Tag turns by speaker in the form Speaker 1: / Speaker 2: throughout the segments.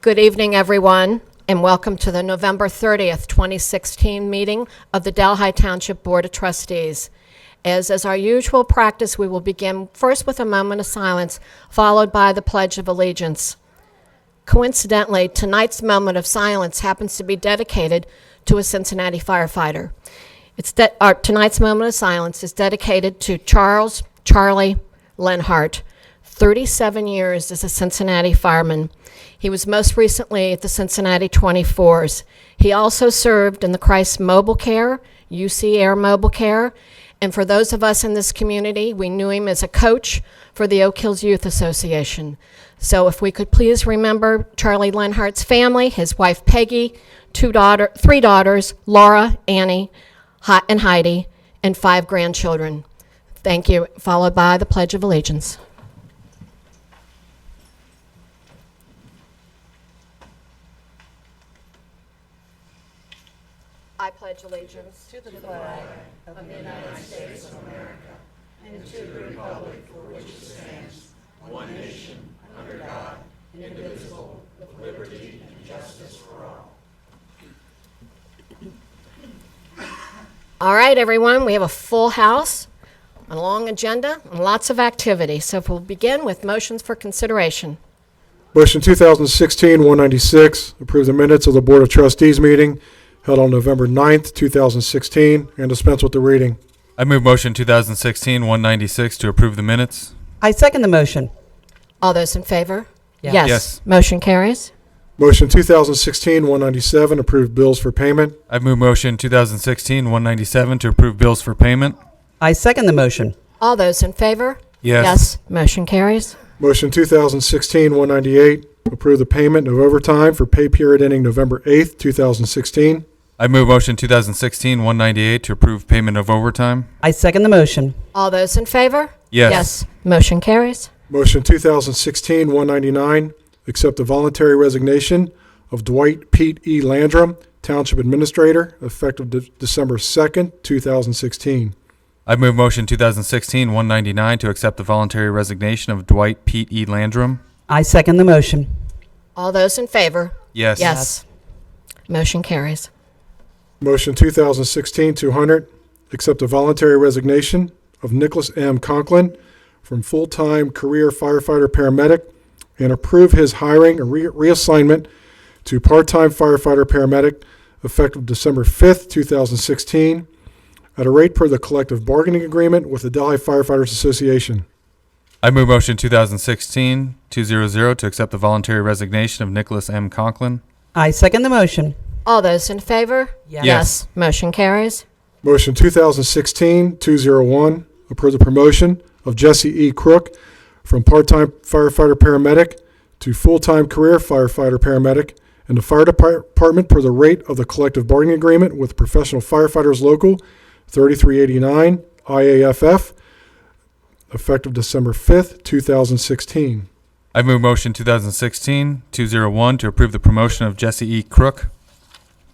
Speaker 1: Good evening, everyone, and welcome to the November 30th, 2016 meeting of the Delhi Township Board of Trustees. As is our usual practice, we will begin first with a moment of silence, followed by the Pledge of Allegiance. Coincidentally, tonight's moment of silence happens to be dedicated to a Cincinnati firefighter. It's de- our, tonight's moment of silence is dedicated to Charles Charlie Lenhart, 37 years as a Cincinnati fireman. He was most recently at the Cincinnati 24s. He also served in the Christ Mobile Care, UC Air Mobile Care, and for those of us in this community, we knew him as a coach for the Oak Hills Youth Association. So if we could please remember Charlie Lenhart's family, his wife Peggy, two daughter, three daughters, Laura, Annie, Hi- and Heidi, and five grandchildren. Thank you, followed by the Pledge of Allegiance. I pledge allegiance All right, everyone, we have a full house, a long agenda, and lots of activity. So if we'll begin with motions for consideration.
Speaker 2: Motion 2016-196, approve the minutes of the Board of Trustees meeting held on November 9th, 2016, and dispense with the reading.
Speaker 3: I move motion 2016 196 to approve the minutes.
Speaker 4: I second the motion.
Speaker 1: All those in favor?
Speaker 4: Yes.
Speaker 3: Yes.
Speaker 1: Motion carries.
Speaker 2: Motion 2016-197, approve bills for payment.
Speaker 3: I move motion 2016 197 to approve bills for payment.
Speaker 4: I second the motion.
Speaker 1: All those in favor?
Speaker 3: Yes.
Speaker 1: Motion carries.
Speaker 2: Motion 2016-198, approve the payment of overtime for pay period ending November 8th, 2016.
Speaker 3: I move motion 2016 198 to approve payment of overtime.
Speaker 4: I second the motion.
Speaker 1: All those in favor?
Speaker 3: Yes.
Speaker 1: Motion carries.
Speaker 2: Motion 2016-199, accept the voluntary resignation of Dwight Pete E. Landrum, Township Administrator, effective De- December 2nd, 2016.
Speaker 3: I move motion 2016 199 to accept the voluntary resignation of Dwight Pete E. Landrum.
Speaker 4: I second the motion.
Speaker 1: All those in favor?
Speaker 3: Yes.
Speaker 1: Motion carries.
Speaker 2: Motion 2016-200, accept a voluntary resignation of Nicholas M. Conklin from full-time career firefighter/paramedic and approve his hiring and re- reassignment to part-time firefighter/paramedic effective December 5th, 2016, at a rate per the collective bargaining agreement with the Delhi Firefighters Association.
Speaker 3: I move motion 2016 200 to accept the voluntary resignation of Nicholas M. Conklin.
Speaker 4: I second the motion.
Speaker 1: All those in favor?
Speaker 4: Yes.
Speaker 1: Motion carries.
Speaker 2: Motion 2016-201, approve the promotion of Jesse E. Crook from part-time firefighter/paramedic to full-time career firefighter/paramedic in the fire depar- department per the rate of the collective bargaining agreement with Professional Firefighters Local 3389 IAFF, effective December 5th, 2016.
Speaker 3: I move motion 2016 201 to approve the promotion of Jesse E. Crook.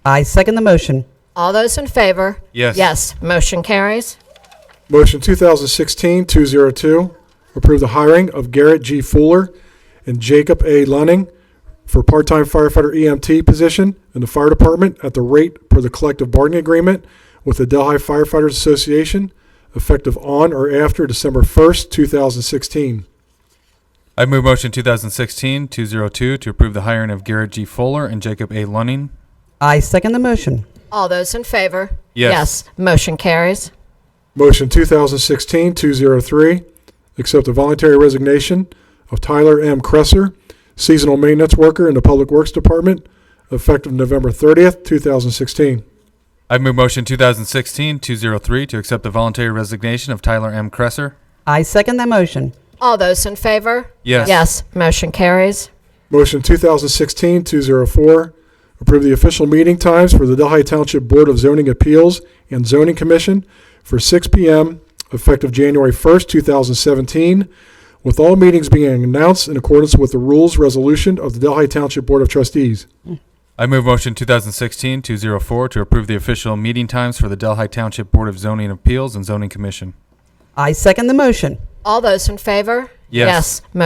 Speaker 4: I second the motion.
Speaker 1: All those in favor?
Speaker 3: Yes.
Speaker 1: Motion carries.
Speaker 2: Motion 2016-202, approve the hiring of Garrett G. Fuller and Jacob A. Lunning for part-time firefighter EMT position in the fire department at the rate per the collective bargaining agreement with the Delhi Firefighters Association, effective on or after December 1st, 2016.
Speaker 3: I move motion 2016-202 to approve the hiring of Garrett G. Fuller and Jacob A. Lunning.
Speaker 4: I second the motion.
Speaker 1: All those in favor?
Speaker 3: Yes.
Speaker 1: Motion carries.
Speaker 2: Motion 2016-203, accept the voluntary resignation of Tyler M. Cresser, seasonal maintenance worker in the Public Works Department, effective November 30th, 2016.
Speaker 3: I move motion 2016-203 to accept the voluntary resignation of Tyler M. Cresser.
Speaker 4: I second the motion.
Speaker 1: All those in favor?
Speaker 3: Yes.
Speaker 1: Motion carries.
Speaker 2: Motion 2016-204, approve the official meeting times for the Delhi Township Board of Zoning Appeals and Zoning Commission for 6 PM effective January 1st, 2017, with all meetings being announced in accordance with the rules resolution of the Delhi Township Board of Trustees.
Speaker 3: I move motion 2016-204 to approve the official meeting times for the Delhi Township Board of Zoning Appeals and Zoning Commission.
Speaker 4: I second the motion.
Speaker 1: All those in favor?
Speaker 3: Yes.
Speaker 1: Mo-